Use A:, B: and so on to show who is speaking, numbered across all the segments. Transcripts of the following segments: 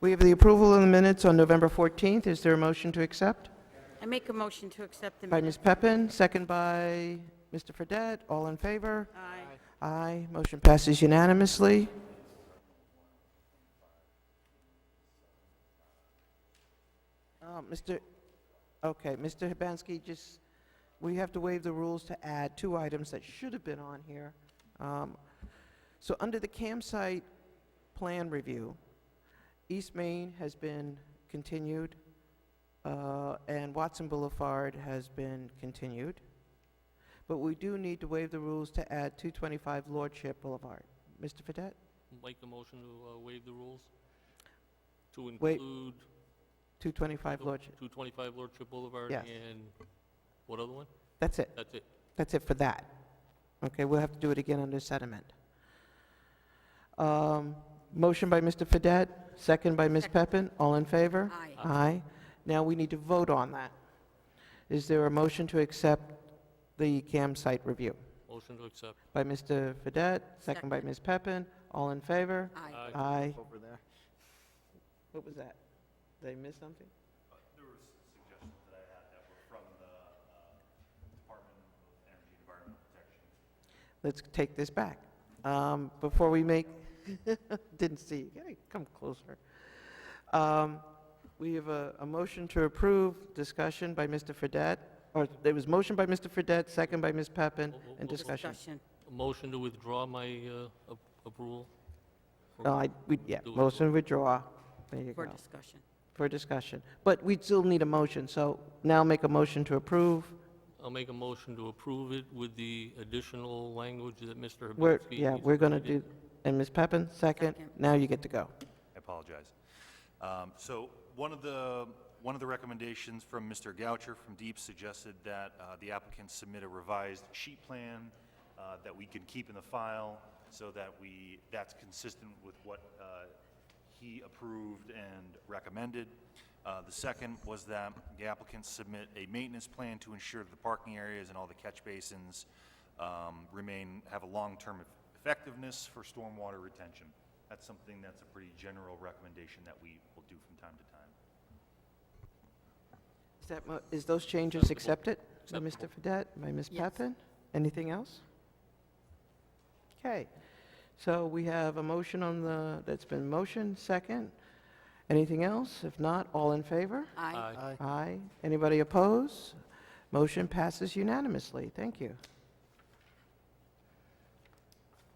A: We have the approval of the minutes on November 14th. Is there a motion to accept?
B: I make a motion to accept the
A: By
B: minutes.
A: Ms. Peppin, second by Mr. Fedett. All in favor?
B: Aye.
A: Aye. Motion passes unanimously. Uh, Mr., okay, Mr. Hibansky, just, we have to waive the rules to add two items that should have been on here. Um, So under the campsite plan review, East Main has been continued, uh, and Watson Boulevard has been continued. But we do need to waive the rules to add 225 Lordship Boulevard. Mr. Fedett?
C: Make a motion to uh, waive the rules to
A: Wait.
C: include
A: 225 Lordship.
C: 225 Lordship Boulevard
A: Yes.
C: and what other one?
A: That's it.
C: That's it.
A: That's it for that. Okay, we'll have to do it again under sediment. Um, Motion by Mr. Fedett, second by Ms. Peppin. All in favor?
B: Aye.
A: Aye. Now we need to vote on that. Is there a motion to accept the campsite review?
C: Motion to accept.
A: By Mr. Fedett, second by
B: Second.
A: Ms. Peppin. All in favor?
B: Aye.
C: Aye.
A: Aye. Over there. What was that? Did I miss something? There were suggestions that I had that were from the Department of Energy and Environmental Protection. Let's take this back. Um, Before we make, didn't see, you. Hey, come closer. Um, We have a, a motion to approve, discussion by Mr. Fedett, or there was motion by Mr. Fedett, second by Ms. Peppin,
C: Oh, oh,
A: and
C: oh.
A: discussion.
C: A Motion to withdraw my uh, ap- approval. for-
A: No, I, we, yeah,
C: Do it.
A: motion to withdraw. There you
B: For
A: go.
B: discussion.
A: for discussion. But we still need a motion, so now make a motion to approve.
C: I'll make a motion to approve it with the additional language that Mr.
A: We're,
C: Hibansky
A: yeah,
C: has
A: we're going to do,
C: provided.
A: and Ms. Peppin, second.
B: Second.
A: Now you get to go.
D: I apologize. Um, So one of the, one of the recommendations from Mr. Goucher from Deep suggested that uh, the applicant submit a revised sheet plan uh, that we can keep in the file so that we, that's consistent with what uh, he approved and recommended. Uh, The second was that the applicant submit a maintenance plan to ensure that the parking areas and all the catch basins um, remain, have a long-term effectiveness for stormwater retention. That's something that's a pretty general recommendation that we will do from time to time.
A: Is that, mo- is those changes accepted by
C: Acceptable.
A: Mr. Fedett, by Ms.
B: Yes.
A: Peppin? Anything else? Okay, so we have a motion on the, that's been motion, second. Anything else? If not, all in favor?
B: Aye.
C: Aye.
A: Aye. Anybody oppose? Motion passes unanimously. Thank you.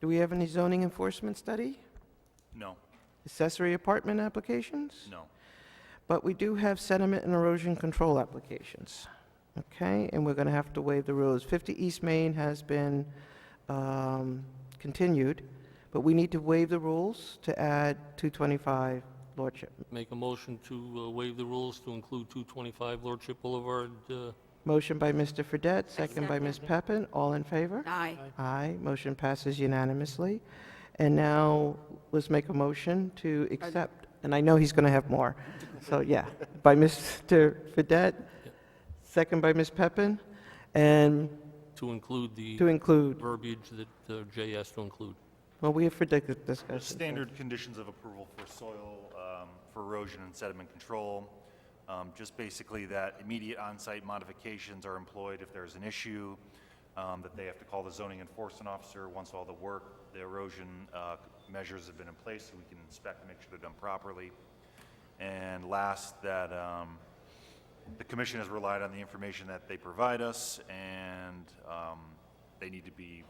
A: Do we have any zoning enforcement study?
D: No,
A: Accessory apartment applications?
D: no.
A: But we do have sediment and erosion control applications. Okay, and we're going to have to waive the rules. 50 East Main has been um, continued, but we need to waive the rules to add 225 Lordship.
C: Make a motion to uh, waive the rules to include 225 Lordship Boulevard. uh,
A: Motion by Mr. Fedett, second by Ms. Peppin. All in favor?
B: Aye.
A: Aye, motion passes unanimously. And now, let's make a motion to accept, and I know he's going to have more, so yeah, by Mr. Fedett, second by Ms. Peppin, and
C: To include the
A: to include,
C: verbiage that uh, Jay asked to include.
A: well, we have for dis-
D: The
A: discussion.
D: standard conditions of approval for soil, um, for erosion and sediment control, um, just basically that immediate on-site modifications are employed if there's an issue, um, that they have to call the zoning enforcement officer once all the work, the erosion uh, measures have been in place, so we can inspect and make sure they're done properly. And last, that um, the commission has relied on the information that they provide us, and um, they need to be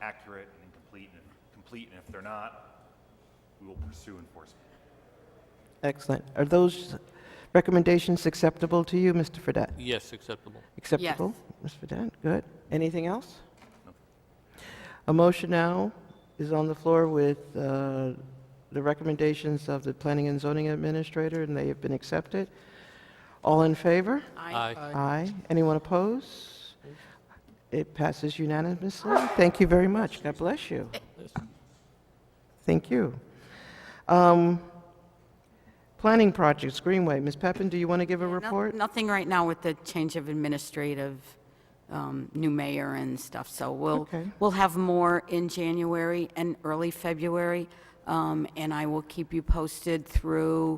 D: accurate and complete, and complete, and if they're not, we will pursue enforcement.
A: Excellent. Are those recommendations acceptable to you, Mr. Fedett?
C: Yes, acceptable.
A: Acceptable? Ms. Fedett, good. Anything else?
D: No.
A: A motion now is on the floor with uh, the recommendations of the Planning and Zoning Administrator, and they have been accepted. All in favor?
C: Aye.
A: Aye. Anyone oppose? It passes unanimously. Thank you very much. God bless you. Thank you. Um, Planning projects, Greenway. Ms. Peppin, do you want to give a
B: No-
A: report?
B: Nothing right now with the change of administrative, um, new mayor and stuff, so we'll,
A: Okay.
B: we'll have more in January and early February, um, and I will keep you posted through